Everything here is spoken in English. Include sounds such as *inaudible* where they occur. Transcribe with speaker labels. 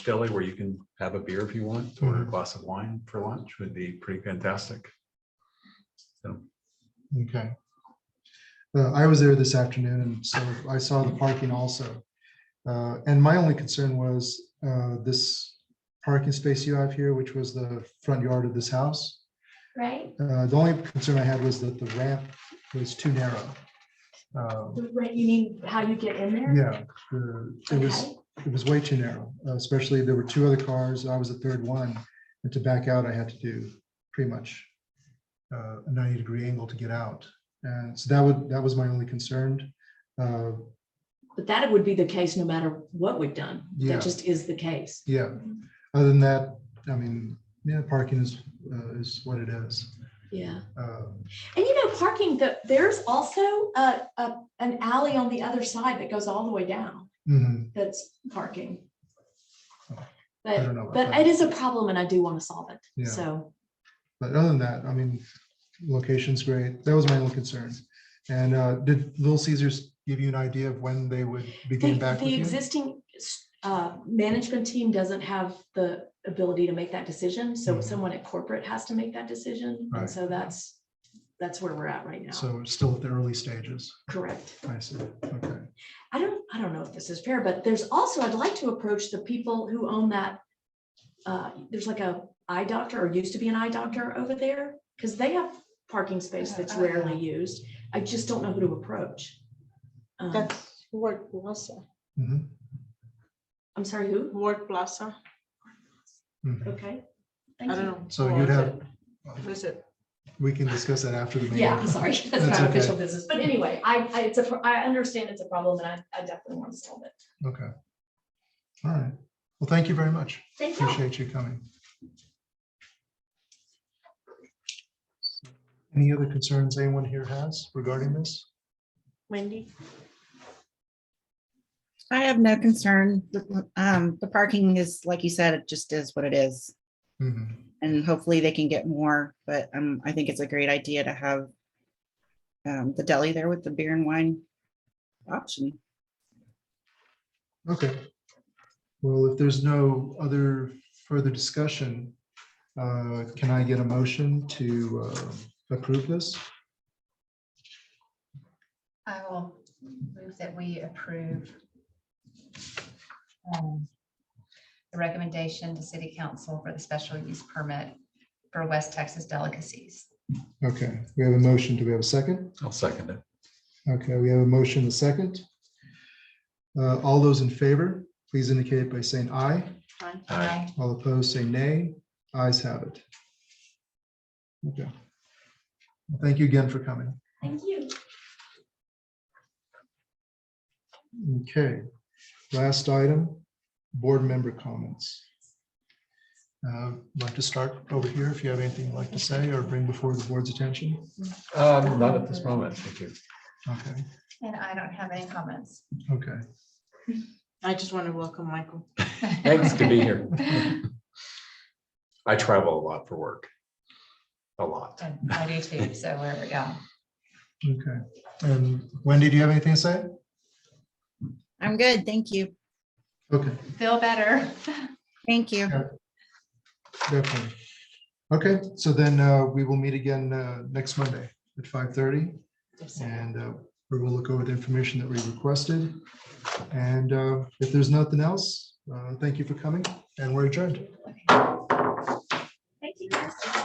Speaker 1: Philly where you can have a beer if you want or a glass of wine for lunch would be pretty fantastic. So,
Speaker 2: Okay. Uh, I was there this afternoon and so I saw the parking also. Uh, and my only concern was, uh, this parking space you have here, which was the front yard of this house.
Speaker 3: right?
Speaker 2: Uh, the only concern I had was that the ramp was too narrow. Um,
Speaker 3: The rent, you mean how you get in there?
Speaker 2: yeah, the- it was,
Speaker 3: Okay.
Speaker 2: it was way too narrow, uh, especially there were two other cars. I was the third one. And to back out, I had to do pretty much uh, a ninety degree angle to get out. And so that would, that was my only concern. Uh,
Speaker 4: But that would be the case no matter what we've done.
Speaker 2: Yeah.
Speaker 4: That just is the case.
Speaker 2: yeah, other than that, I mean, yeah, parking is, uh, is what it is.
Speaker 4: Yeah.
Speaker 2: Uh,
Speaker 3: And you know, parking, the, there's also a, a, an alley on the other side that goes all the way down,
Speaker 2: mhm,
Speaker 3: that's parking.
Speaker 2: I don't
Speaker 3: But,
Speaker 2: know about
Speaker 3: but
Speaker 2: that.
Speaker 3: it is a problem and I do want to solve it,
Speaker 2: Yeah.
Speaker 3: so.
Speaker 2: But other than that, I mean, location's great. That was my only concern. And uh, did Little Caesars give you an idea of when they would be
Speaker 3: The,
Speaker 2: getting back with
Speaker 3: the
Speaker 2: you?
Speaker 3: existing, uh, management team doesn't have the ability to make that decision, so
Speaker 2: Mhm.
Speaker 3: someone at corporate has to make that decision,
Speaker 2: Right.
Speaker 3: and so that's, that's where we're at right now,
Speaker 2: So it's still at the early stages.
Speaker 3: correct?
Speaker 2: I see. Okay.
Speaker 3: I don't, I don't know if this is fair, but there's also, I'd like to approach the people who own that. uh, There's like a eye doctor or used to be an eye doctor over there, because they have parking space that's rarely used. I just don't know who to approach. Um,
Speaker 5: That's Word Plaza,
Speaker 2: Mhm,
Speaker 3: I'm sorry, who?
Speaker 5: Word Plaza.
Speaker 2: mhm.
Speaker 3: Okay.
Speaker 5: I
Speaker 3: Thank
Speaker 5: don't
Speaker 3: you.
Speaker 5: know.
Speaker 2: So
Speaker 5: Or
Speaker 2: you'd
Speaker 5: is
Speaker 2: have-
Speaker 5: it- Is it?
Speaker 2: We can discuss that after the meeting.
Speaker 3: Yeah, I'm sorry, *laughs* that's
Speaker 2: That's
Speaker 3: not
Speaker 2: okay.
Speaker 3: official business, but anyway, I, I, it's a, pro- I understand it's a problem and I, I definitely want to solve it.
Speaker 2: Okay. All right. Well, thank you very much.
Speaker 3: Thank you.
Speaker 2: Appreciate you coming. Any other concerns anyone here has regarding this?
Speaker 5: Wendy?
Speaker 6: I have no concern. The, Um, the parking is, like you said, it just is what it is.
Speaker 2: Mhm,
Speaker 6: And hopefully they can get more, but, um, I think it's a great idea to have um, the deli there with the beer and wine option.
Speaker 2: Okay. Well, if there's no other further discussion, uh, can I get a motion to uh, approve this?
Speaker 7: I will move that we approve um, the recommendation to city council for the special use permit for West Texas delicacies.
Speaker 2: Okay, we have a motion. Do we have a second?
Speaker 1: I'll second it.
Speaker 2: Okay, we have a motion, a second. Uh, All those in favor, please indicate by saying aye.
Speaker 1: Aye.
Speaker 2: All opposed, say nay. Ayes have it. Okay. Well, Thank you again for coming.
Speaker 3: Thank you.
Speaker 2: Okay, last item, board member comments. Uh, Like to start over here if you have anything you'd like to say or bring before the board's attention.
Speaker 1: Um, not at this moment. Thank you.
Speaker 2: Okay,
Speaker 7: And I don't have any comments.
Speaker 2: okay.
Speaker 5: I just want to welcome Michael.
Speaker 1: Thanks to be here. I travel a lot for work. A lot.
Speaker 7: And *laughs* I do too, so wherever, yeah.
Speaker 2: Okay, and Wendy, do you have anything to say?
Speaker 6: I'm good. Thank you.
Speaker 2: Okay.
Speaker 7: Feel better.
Speaker 6: Thank you.
Speaker 2: Definitely. Okay, so then uh, we will meet again uh, next Monday at five thirty and uh, we will look over the information that we requested. And uh, if there's nothing else, uh, thank you for coming and we're adjourned.